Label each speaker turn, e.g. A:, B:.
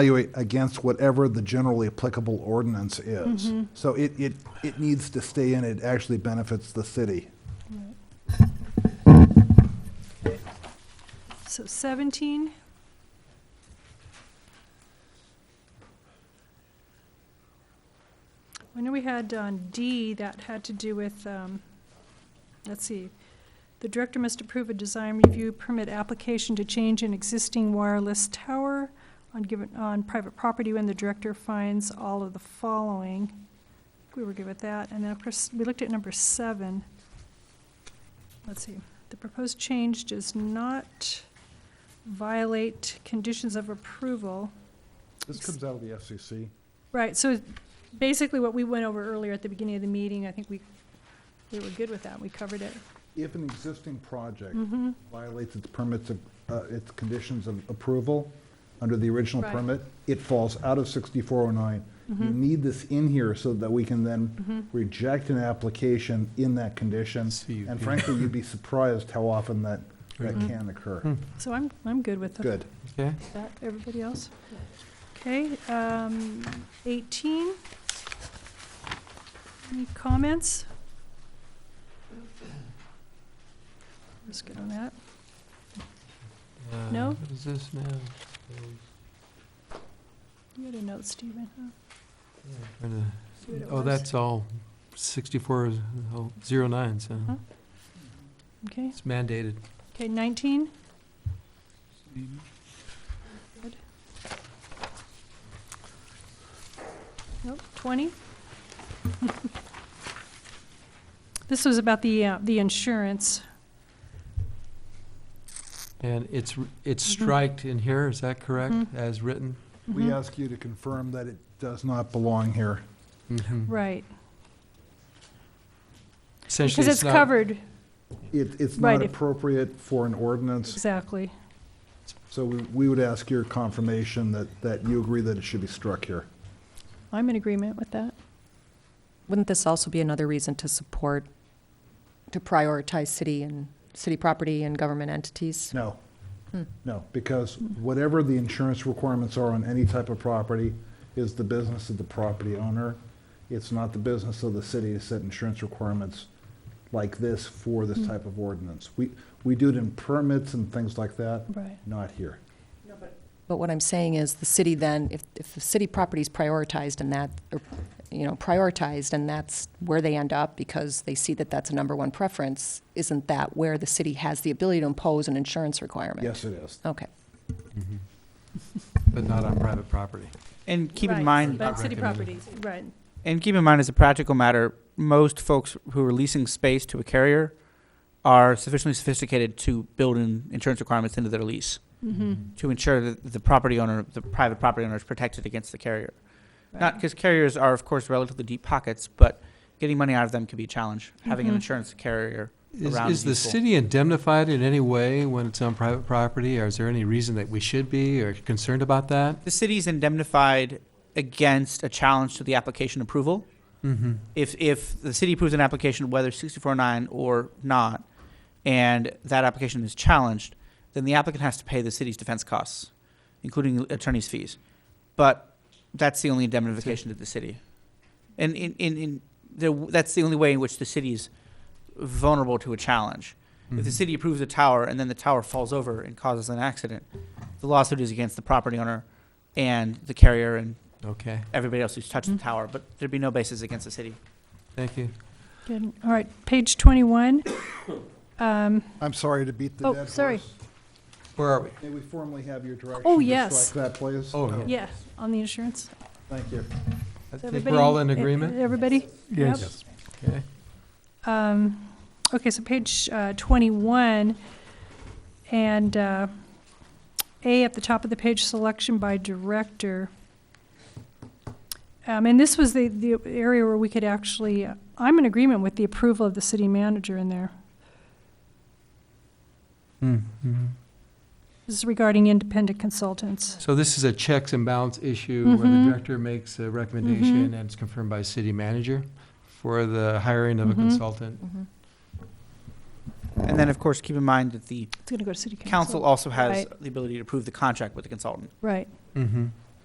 A: evaluate against whatever the generally applicable ordinance is. So it, it, it needs to stay in, it actually benefits the city.
B: So 17, I know we had on D, that had to do with, um, let's see, the director must approve a design review permit application to change an existing wireless tower on given, on private property when the director finds all of the following. We were good with that, and then of course, we looked at number seven. Let's see, the proposed change does not violate conditions of approval.
A: This comes out of the FCC.
B: Right, so basically what we went over earlier at the beginning of the meeting, I think we, we were good with that, we covered it. Mm-hmm.
A: If an existing project
B: Mm.
A: violates its permits, of- uh, its conditions of approval under the original
B: Right.
A: permit, it falls out of 6409. You need this in here so that we can then reject an application in that condition. And
C: CUP.
A: frankly, you'd be surprised how often that, that can occur.
B: So I'm, I'm good with
A: Good.
C: Okay,
B: that. Everybody else? Okay, um, 18. Any comments? Let's get on that.
C: uh,
B: No?
C: What is this now?
B: You had a note, Stephen, huh?
C: Or the-
B: See what it
C: Oh,
B: was?
C: that's all sixty-four, is- oh, zero nine, so
B: Huh? Okay,
C: it's mandated.
B: okay, 19? Good. Nope, 20? This was about the, uh, the insurance.
C: And it's, r- it's
B: Mhm.
C: striked in here, is that correct, as written?
A: We ask you to confirm that it does not belong here.
C: Mhm.
B: Right,
C: Essentially,
B: because it's
C: not-
B: covered,
A: It, it's
B: Right,
A: not
B: if-
A: appropriate for an ordinance,
B: exactly.
A: so we, we would ask your confirmation that, that you agree that it should be struck here.
B: I'm in agreement with that.
D: Wouldn't this also be another reason to support, to prioritize city and, city property and government entities?
A: No. No, because whatever the insurance requirements are on any type of property is the business of the property owner. It's not the business of the city to set insurance requirements like this for this type of ordinance. We, we do it in permits and things like that,
B: Right.
A: not here.
D: But what I'm saying is, the city then, if, if the city property is prioritized and that, or, you know, prioritized, and that's where they end up because they see that that's a number one preference, isn't that where the city has the ability to impose an insurance requirement?
A: Yes, it is.
D: Okay.
C: But not on private property.
E: And keep
B: Right,
E: in mind,
B: But city
C: Recommended.
B: properties, right.
E: and keep in mind, as a practical matter, most folks who are leasing space to a carrier are sufficiently sophisticated to build in insurance requirements into their lease
B: Mm-hmm.
E: to ensure that the property owner, the private property owner, is protected against the carrier. Not because carriers are, of course, relatively deep pockets, but getting money out of them can be a challenge. Having
B: Mhm.
E: an insurance carrier,
C: Is,
E: Around
C: is the
E: people.
C: city indemnified in any way when it's on private property, or is there any reason that we should be, or concerned about that?
E: the city's indemnified against a challenge to the application approval.
C: Mm-hmm.
E: if if the city approves an application, whether sixty-four oh nine or not, and that application is challenged, then the applicant has to pay the city's defense costs, including attorney's fees. But that's the only indemnification to the city, and in in, in there, that's the only way in which the city is vulnerable to a challenge.
C: Mm-hmm.
E: If the city approves a tower and then the tower falls over and causes an accident, the lawsuit is against the property owner and the carrier and
C: Okay,
E: everybody else who's touched
B: Mhm.
E: the tower, but there'd be no basis against the city.
C: thank you.
B: Good. All right, page 21. Um,
A: I'm sorry to beat the
B: Oh,
A: dead horse.
B: sorry.
C: Where are we?
A: May we formally have your direction?
B: Oh,
A: to
B: yes.
A: Strike that, please?
C: Oh, yeah.
B: Yeah, on the insurance.
A: Thank you.
C: I
B: Is
C: think
B: everybody-
C: we're all in
B: e-
C: agreement?
B: Everybody? Yes.
C: Okay.
B: Um, Okay, so page uh, 21, and uh, A at the top of the page, selection by director. Um, And this was the, the area where we could actually, uh, I'm in agreement with the approval of the city manager in there.
C: Mm-hmm.
B: This is regarding independent consultants.
C: So this is a checks and balance issue where
B: Mhm.
C: the director makes a recommendation and it's confirmed by city manager for the hiring of a
B: Mhm.
C: consultant.
D: Mhm.
E: And then, of course, keep in mind that the
B: It's going to go to city council.
E: council also has
B: Right.
E: the ability to approve the contract with the consultant.
B: Right,
C: Mm-hmm.